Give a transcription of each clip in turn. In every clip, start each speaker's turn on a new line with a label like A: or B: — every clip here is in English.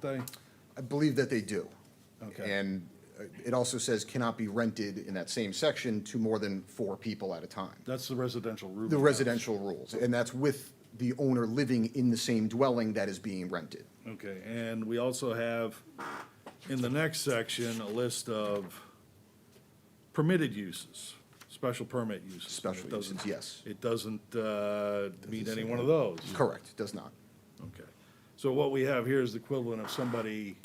A: they?
B: I believe that they do.
A: Okay.
B: And uh, it also says cannot be rented in that same section to more than four people at a time.
A: That's the residential roofing.
B: The
A: house.
B: residential rules, and that's with the owner living in the same dwelling that is being rented.
A: Okay, and we also have, in the next section, a list of permitted uses, special permit uses.
B: Special
A: It doesn't-
B: uses, yes.
A: It doesn't uh, meet any one of those.
B: Correct, does not.
A: Okay. So what we have here is the equivalent of somebody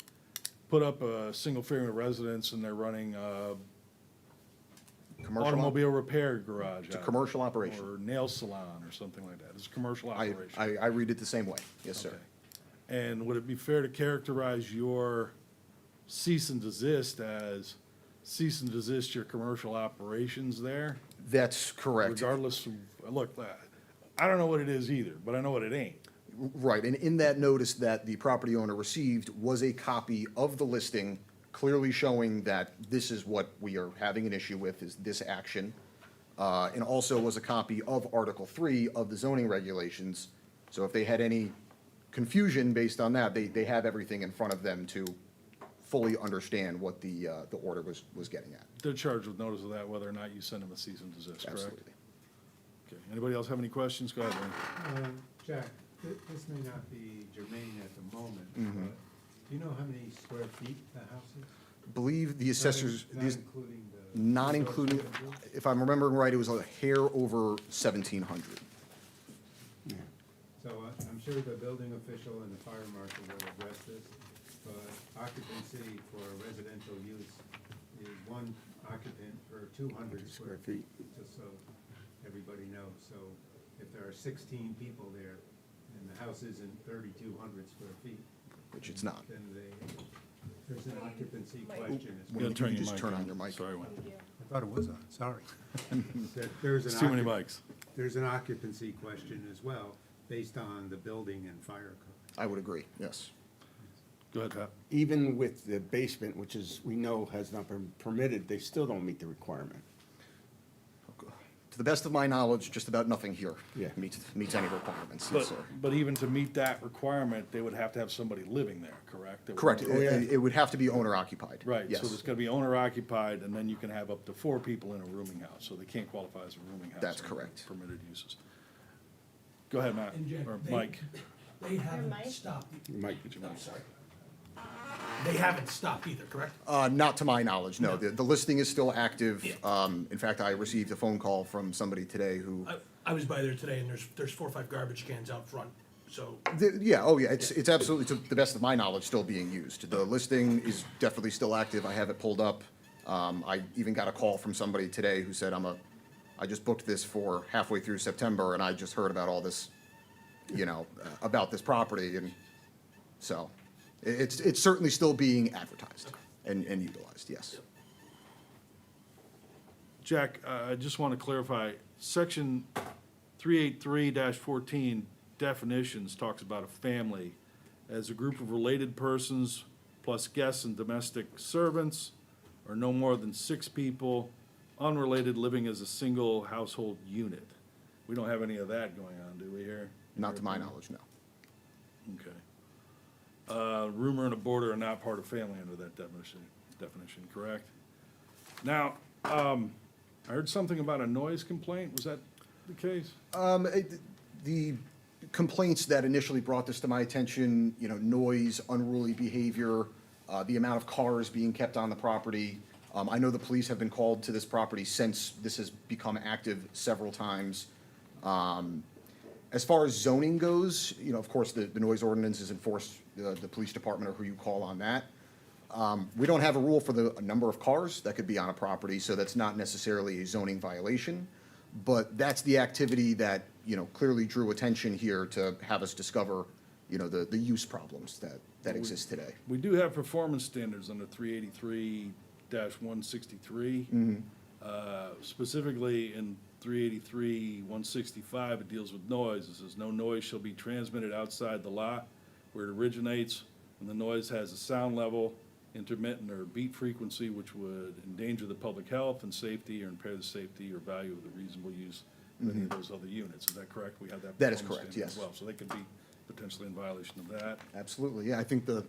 A: put up a single-family residence and they're running a
B: Commercial, op-
A: automobile repair garage. It's
B: a commercial operation.
A: Or nail salon or something like that. It's a commercial
B: I,
A: operation.
B: I, I read it the same way, yes, sir.
A: Okay. And would it be fair to characterize your cease and desist as cease and desist your commercial operations there?
B: That's correct.
A: Regardless, of look, uh, I don't know what it is either, but I know what it ain't.
B: Right, and in that notice that the property owner received was a copy of the listing, clearly showing that this is what we are having an issue with, is this action. Uh, and also was a copy of Article Three of the zoning regulations. So if they had any confusion based on that, they, they have everything in front of them to fully understand what the, uh, the order was, was getting at.
A: They're charged with notice of that, whether or not you send them a cease and desist, correct?
B: Absolutely.
A: Okay, anybody else have any questions? Go ahead, Lynn.
C: Um, Jack, thi- this may not be germane at the moment,
B: Mm-hmm.
C: but do you know how many square feet the house is?
B: Believe the assessors,
C: Not
B: these,
C: including the.
B: not including,
C: Well,
B: if I'm remembering right, it was a hair over seventeen hundred.
C: So I- I'm sure the building official and the fire marshal will address this, but occupancy for residential use is one occupant per two hundred square feet, just so everybody knows. So if there are sixteen people there and the house isn't thirty-two hundred square feet.
B: Which it's not.
C: Then they, there's an occupancy question. as
B: Well,
C: well.
A: You gotta turn
B: you just turn
A: mic
B: on your mic.
A: Sorry, Wayne.
C: I thought it was on, sorry. There- There's an.
A: It's too many
C: occup-
A: mics.
C: There's an occupancy question as well, based on the building and fire code.
B: I would agree, yes.
A: Go ahead, Pat.
D: even with the basement, which is, we know has not been permitted, they still don't meet the requirement.
B: To the best of my knowledge, just about nothing here
D: Yeah.
B: meets, meets any requirements,
A: But,
B: yes, sir.
A: but even to meet that requirement, they would have to have somebody living there, correct? That would-
B: Correct,
D: Oh, yeah.
B: it, it would have to be owner occupied.
A: Right, so there's
B: Yes,
A: gonna be owner occupied, and then you can have up to four people in a rooming house, so they can't qualify as a rooming house.
B: That's
A: under
B: correct.
A: Permitted uses. Go ahead, Matt,
E: And Jack,
A: or
E: they-
A: Mike.
E: They haven't
F: mic?
E: stopped. e-
D: Mike,
E: I'm sorry. They haven't stopped either, correct?
B: uh, not to my knowledge, no, the, the listing is still active.
E: Yeah.
B: Um, in fact, I received a phone call from somebody today who,
E: I, I was by there today and there's, there's four or five garbage cans out front, so
B: the- yeah, oh yeah, it's, it's absolutely, to the best of my knowledge, still being used. The listing is definitely still active, I have it pulled up. Um, I even got a call from somebody today who said, I'm a, I just booked this for halfway through September and I just heard about all this, you know, uh, about this property and so i- it's, it's certainly still being advertised and, and utilized, yes.
A: Jack, uh, I just wanna clarify, section three eight three fourteen definitions talks about a family as a group of related persons plus guests and domestic servants, or no more than six people, unrelated living as a single household unit. We don't have any of that going on, do we here?
B: Not to my knowledge, no.
A: Okay. Uh, rumor and a border are not part of family under that definition, definition, correct? Now, um, I heard something about a noise complaint, was that the case?
B: Um, it- The complaints that initially brought this to my attention, you know, noise, unruly behavior, uh, the amount of cars being kept on the property. Um, I know the police have been called to this property since this has become active several times. Um, As far as zoning goes, you know, of course, the, the noise ordinance is enforced, uh, the, the police department or who you call on that. Um, We don't have a rule for the number of cars that could be on a property, so that's not necessarily a zoning violation. But that's the activity that, you know, clearly drew attention here to have us discover, you know, the, the use problems that, that exist today.
A: We do have performance standards under three eighty-three one sixty-three.
B: Mm-hmm.
A: Uh, specifically in three eighty-three, one sixty-five, it deals with noise. It says, no noise shall be transmitted outside the lot where it originates, and the noise has a sound level, intermittent or beat frequency, which would endanger the public health and safety or impair the safety or value of the reasonable use of any of those other units. Is that correct? We have that.
B: Mm-hmm. That is
A: performance standard
B: correct,
A: as
B: yes.
A: Well, so they could be potentially in violation of that.
B: Absolutely, yeah, I think the,